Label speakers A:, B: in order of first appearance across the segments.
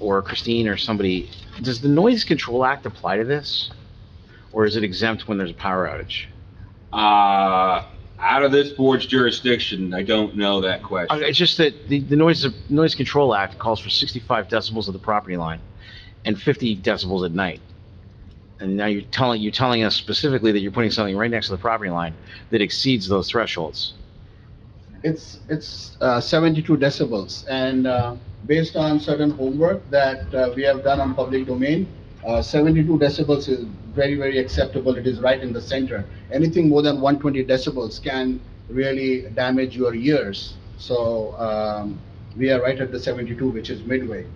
A: or Christine or somebody, does the Noise Control Act apply to this? Or is it exempt when there's a power outage?
B: Uh, out of this board's jurisdiction, I don't know that
A: Uh,
B: question.
A: It's just that the, the noise, noise control act calls for sixty-five decibels of the property line and fifty decibels at night. And now you're telling, you're telling us specifically that you're putting something right next to the property line that exceeds those thresholds.
C: It's, it's uh, 72 decibels, and uh, based on certain homework that uh, we have done on public domain, uh, 72 decibels is very, very acceptable, it is right in the center. Anything more than 120 decibels can really damage your ears, so um, we are right at the 72, which is midway.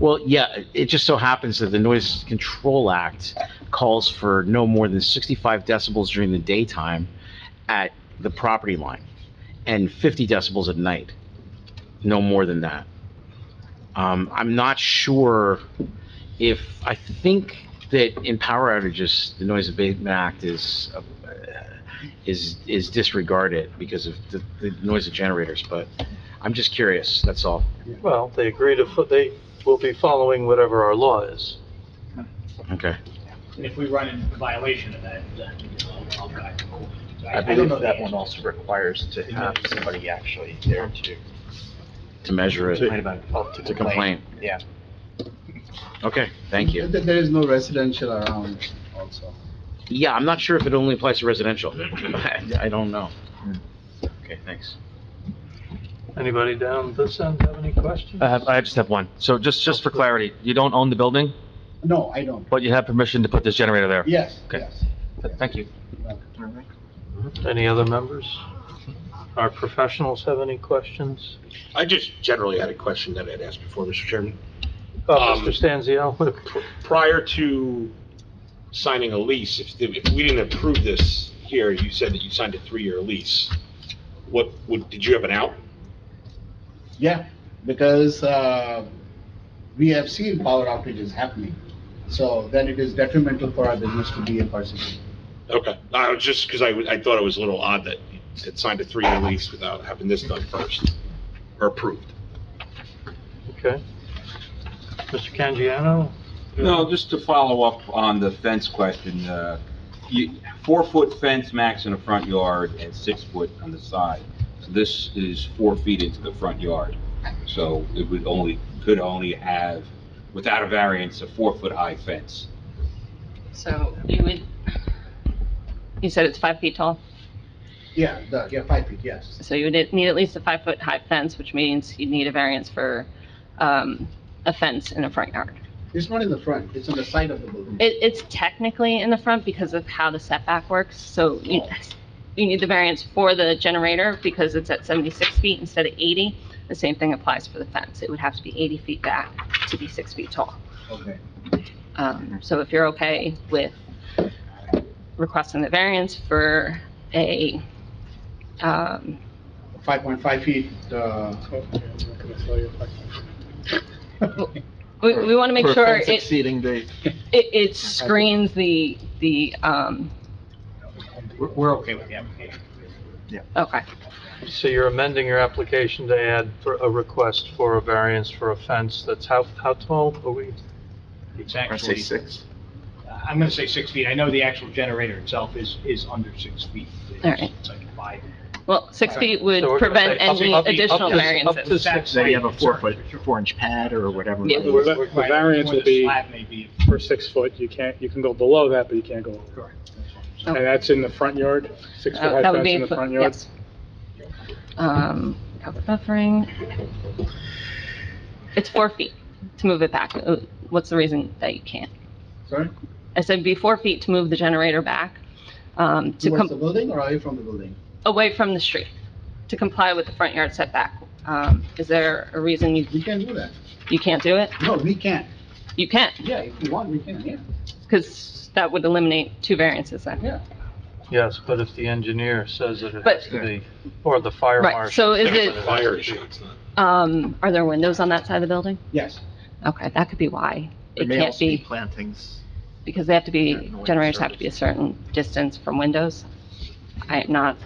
A: Well, yeah, it just so happens that the noise control act calls for no more than sixty-five decibels during the daytime at the property line and fifty decibels at night, no more than that. Um, I'm not sure if, I think that in power outages, the noise abatement act is, uh, is, is disregarded because of the, the noise of generators, but I'm just curious, that's all.
D: Well, they agree to, fo- they will be following whatever our law is.
A: Okay.
E: And if we run in violation of that, then I'll, I'll guide. So
F: I
E: don't
F: believe
E: know the
F: that
E: answer.
F: one also requires to have somebody actually there to
A: to measure it,
F: complain about,
D: Uh,
F: oh, to
A: to complain.
F: complain. Yeah.
A: Okay, thank you.
C: There there is no residential around also.
A: Yeah, I'm not sure if it only applies to residential. I I don't know.
G: Hmm.
A: Okay, thanks.
D: Anybody down this end have any questions?
G: I have, I just have one. So just, just for clarity, you don't own the building,
C: No, I don't.
G: but you have permission to put this generator there?
C: Yes,
G: Okay.
C: yes.
G: Thank you.
D: Any other members? Our professionals have any questions?
H: I just generally had a question that I'd asked before, Mr. Chairman.
D: Oh,
H: Um,
D: Mr. Stanzio, look,
H: Prior to signing a lease, if, if we didn't approve this here, you said that you signed a three-year lease. What, would, did you have an out?
C: Yeah, because uh, we have seen power outages happening. So then it is detrimental for our business to be in Parsippany.
H: Okay, I was just, because I, w- I thought it was a little odd that you had signed a three-year lease without having this done first, or approved.
D: okay. Mr. Canjiano?
B: No, just to follow up on the fence question, uh, you, four-foot fence max in the front yard and six-foot on the side. So This is four feet into the front yard, so it would only, could only have, without a variance, a four-foot-high fence.
I: So you would, you said it's five feet tall,
C: Yeah, the, yeah, five feet, yes.
I: so you would need at least a five-foot-high fence, which means you'd need a variance for um, a fence in a front yard.
C: It's not in the front, it's on the side of the building.
I: It, it's technically in the front because of how the setback works, so you, you need the variance for the generator because it's at 76 feet instead of 80. The same thing applies for the fence. It would have to be 80 feet back to be six feet tall.
C: Okay.
I: Um, So if you're okay with requesting the variance for a, um,
C: Five point five feet, uh,
I: we, we want to make
F: For a
I: sure
F: fence
I: it,
F: Exceeding the,
I: it, it screens the, the, um,
F: we're, we're okay with the application.
I: okay.
D: So you're amending your application to add for a request for a variance for a fence that's how, how tall are we?
E: It's
F: I say
E: actually, uh,
F: six.
E: I'm gonna say six feet. I know the actual generator itself is, is under six feet. It's-
I: All right.
E: It's like five.
I: Well, six feet would
D: So we're gonna
I: prevent
D: say up-
I: any
D: up- up
I: additional
D: to- Up to
I: variances.
E: That's
D: six,
F: So you have
E: my
F: a four
E: concern,
F: foot,
E: for sure.
F: four inch pad or whatever.
I: Yeah.
J: The the
E: Right,
J: variance
E: where
J: will
E: the
J: be
E: slab may be.
J: for six foot, you can't, you can go below that, but you can't go over.
E: Correct.
J: And that's in the front yard, six foot
I: Uh,
J: high
I: Oh. That would
J: fence
I: be,
J: in the front yard?
I: yes. Um, cover buffering. It's four feet to move it back. Uh, What's the reason that you can't?
C: sorry,
I: I said be four feet to move the generator back, um, to
C: towards
I: come.
C: the building or away from the building?
I: away from the street to comply with the front yard setback. Um, Is there a reason you,
C: We can do that.
I: you can't do it?
C: No, we can.
I: You can,
C: Yeah, if you want, we can, yeah,
I: because that would eliminate two variances then.
C: yeah.
D: yes, but if the engineer says that it
I: But-
D: has to be, or the fire marshal.
I: Right, so is
D: says that
I: it,
D: has
H: Fire
D: to be.
H: issue, it's not.
I: um, are there windows on that side of the building?
C: Yes,
I: Okay, that could be why.
F: There
I: It
F: may
I: can't
F: also be
I: be,
F: plantings.
I: because they have to be,
F: Yeah, no
I: generators have to be a certain distance from windows. I am not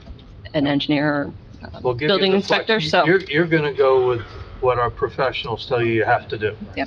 I: an engineer or uh,
D: We'll give you
I: building
D: the
I: inspector,
D: flex-
I: so.
D: You're, you're gonna go with what our professionals tell you you have to do.